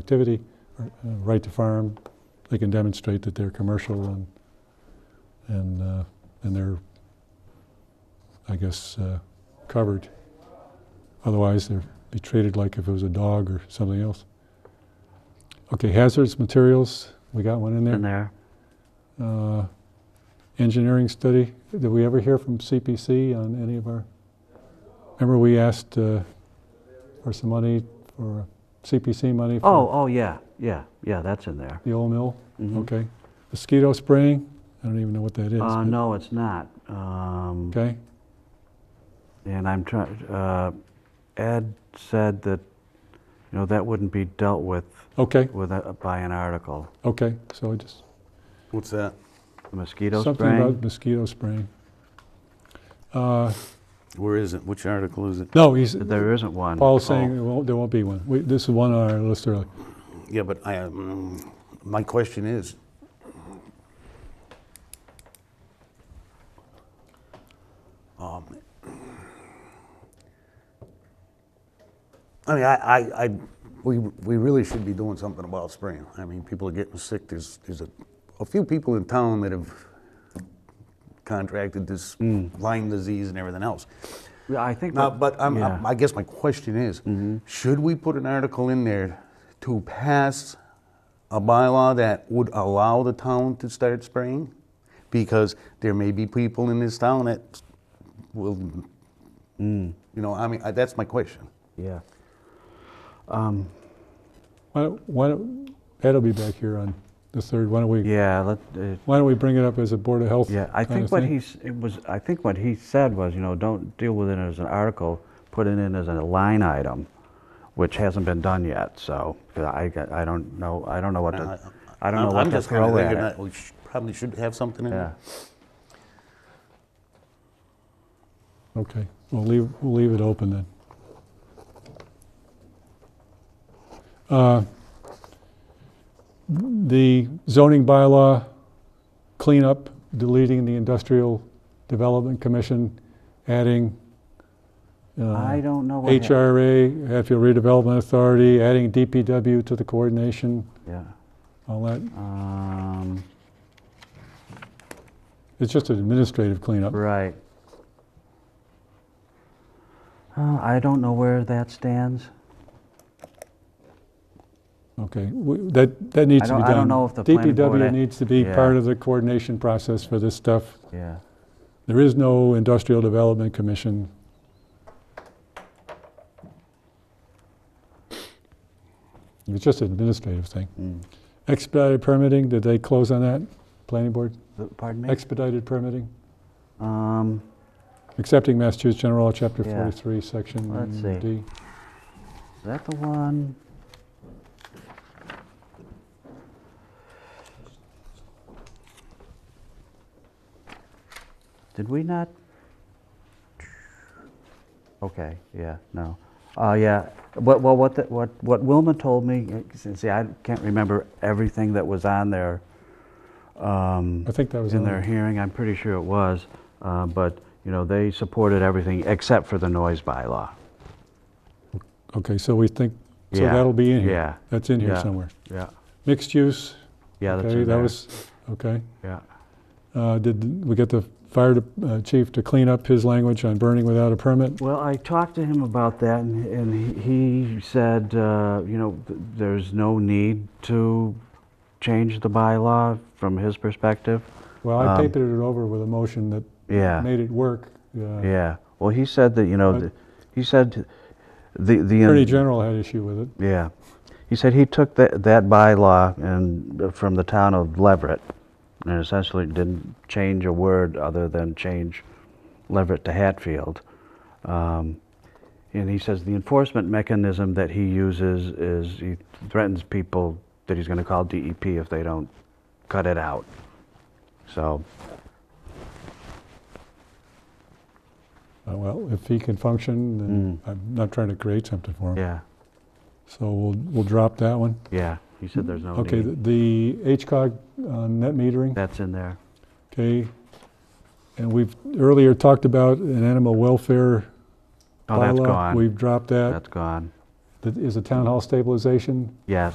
activity, uh, right to farm, they can demonstrate that they're commercial and, and, uh, and they're, I guess, uh, covered. Otherwise, they're be treated like if it was a dog or something else. Okay, hazardous materials, we got one in in there. there. Uh, Engineering study, did we ever hear from CPC on any of our? Remember, we asked uh, for some money, for CPC money for Oh, oh, yeah, yeah, yeah, that's in there. The old mill? Mhm. Okay. Mosquito spraying? I don't even know what that is. Uh, but- no, it's not. Um, Okay, And I'm trying, uh, Ed said that, you know, that wouldn't be dealt with, okay, with, a- by an article. okay. So I just, What's that? Mosquito something about spraying? mosquito spraying. Uh, Where is it? Which article is it? No, he's, There isn't one. Paul's saying Oh, there won't, there won't be one. We- This is one on our list earlier. Yeah, but I, um, my question is, um, I mean, I, I, I, we, we really should be doing something about spraying. I mean, people are getting sick. There's, there's a, a few people in town that have contracted this Lyme disease and everything else. yeah, Oh, I think. Now, that- but I'm, yeah. Mm-hmm. I guess my question is, should we put an article in there to pass a bylaw that would allow the town to start spraying? Because there may be people in this town that will, Mm. you know, I mean, I, that's my question. Yeah. Why don't- Why don't, Ed will be back here on the third. Why don't we, Yeah, let, uh, why don't we bring it up as a Board of Health? yeah, I kinda think what thing? he's, it was, I think what he said was, you know, don't deal with it as an article, put it in as a line item, which hasn't been done yet, so, 'cause I, got- I don't know, I don't know what to, I don't know I'm- what I'm to just kinda throw at thinking it. that We sh- probably should have something in Yeah. there. Okay, we'll leave, we'll leave it open then. Uh, The zoning bylaw cleanup, deleting the Industrial Development Commission, adding uh, I don't know what. hap- HRA, Hatfield Redevelopment Authority, adding DPW to the coordination, Yeah. all that. Um, It's just an administrative cleanup. right. Uh, I don't know where that stands. Okay, we- that, that needs to I be don't- done. I don't know if the planning board DPW a- needs to be Yeah. part of the coordination process for this stuff. Yeah. There is no Industrial Development Commission. It's just an administrative thing. Mm. Expedited permitting, did they close on that, planning board? Th- Pardon me? Expedited permitting, Um, accepting Massachusetts General Law, Chapter Yeah. 43, Section Let's see. D. is that the one? Did we not? Okay, yeah, no. Uh, yeah, what, well, what, the- what, what Wilma told me, uh, see, I can't remember everything that was on there. Um, I think that was in on their there. hearing, I'm pretty sure it was, uh, but, you know, they supported everything except for the noise bylaw. Okay, so we think, so Yeah. that'll be in here. Yeah. That's in here Yeah. somewhere. Yeah, Mixed use, yeah, that's okay, in that there. was, okay. Yeah, Uh, Did we get the fire de- uh, chief to clean up his language on burning without a permit? well, I talked to him about that, and, and he he said, uh, you know, th- there's no need to change the bylaw from his perspective. Well, I Um, papered it over with a motion that Yeah, made it work. Uh, yeah, well, he said that, you know, But- th- he said the, the. Attorney General had issue with it. Yeah. He said he took that, that bylaw and, uh, from the town of Leverett and essentially didn't change a word other than change Leverett to Hatfield. Um, and he says the enforcement mechanism that he uses is he threatens people that he's going to call DEP if they don't cut it out. So, Uh, Well, if he can function, then I'm not trying to create something for him. Mm. yeah, So we'll, we'll drop that one. yeah. He said there's no Okay, need. the the HCOG uh, net metering, That's in there. okay? And we've earlier talked about an animal welfare Oh, that's bylaw. gone. We've dropped that. That's gone. That is a town hall stabilization. Yes.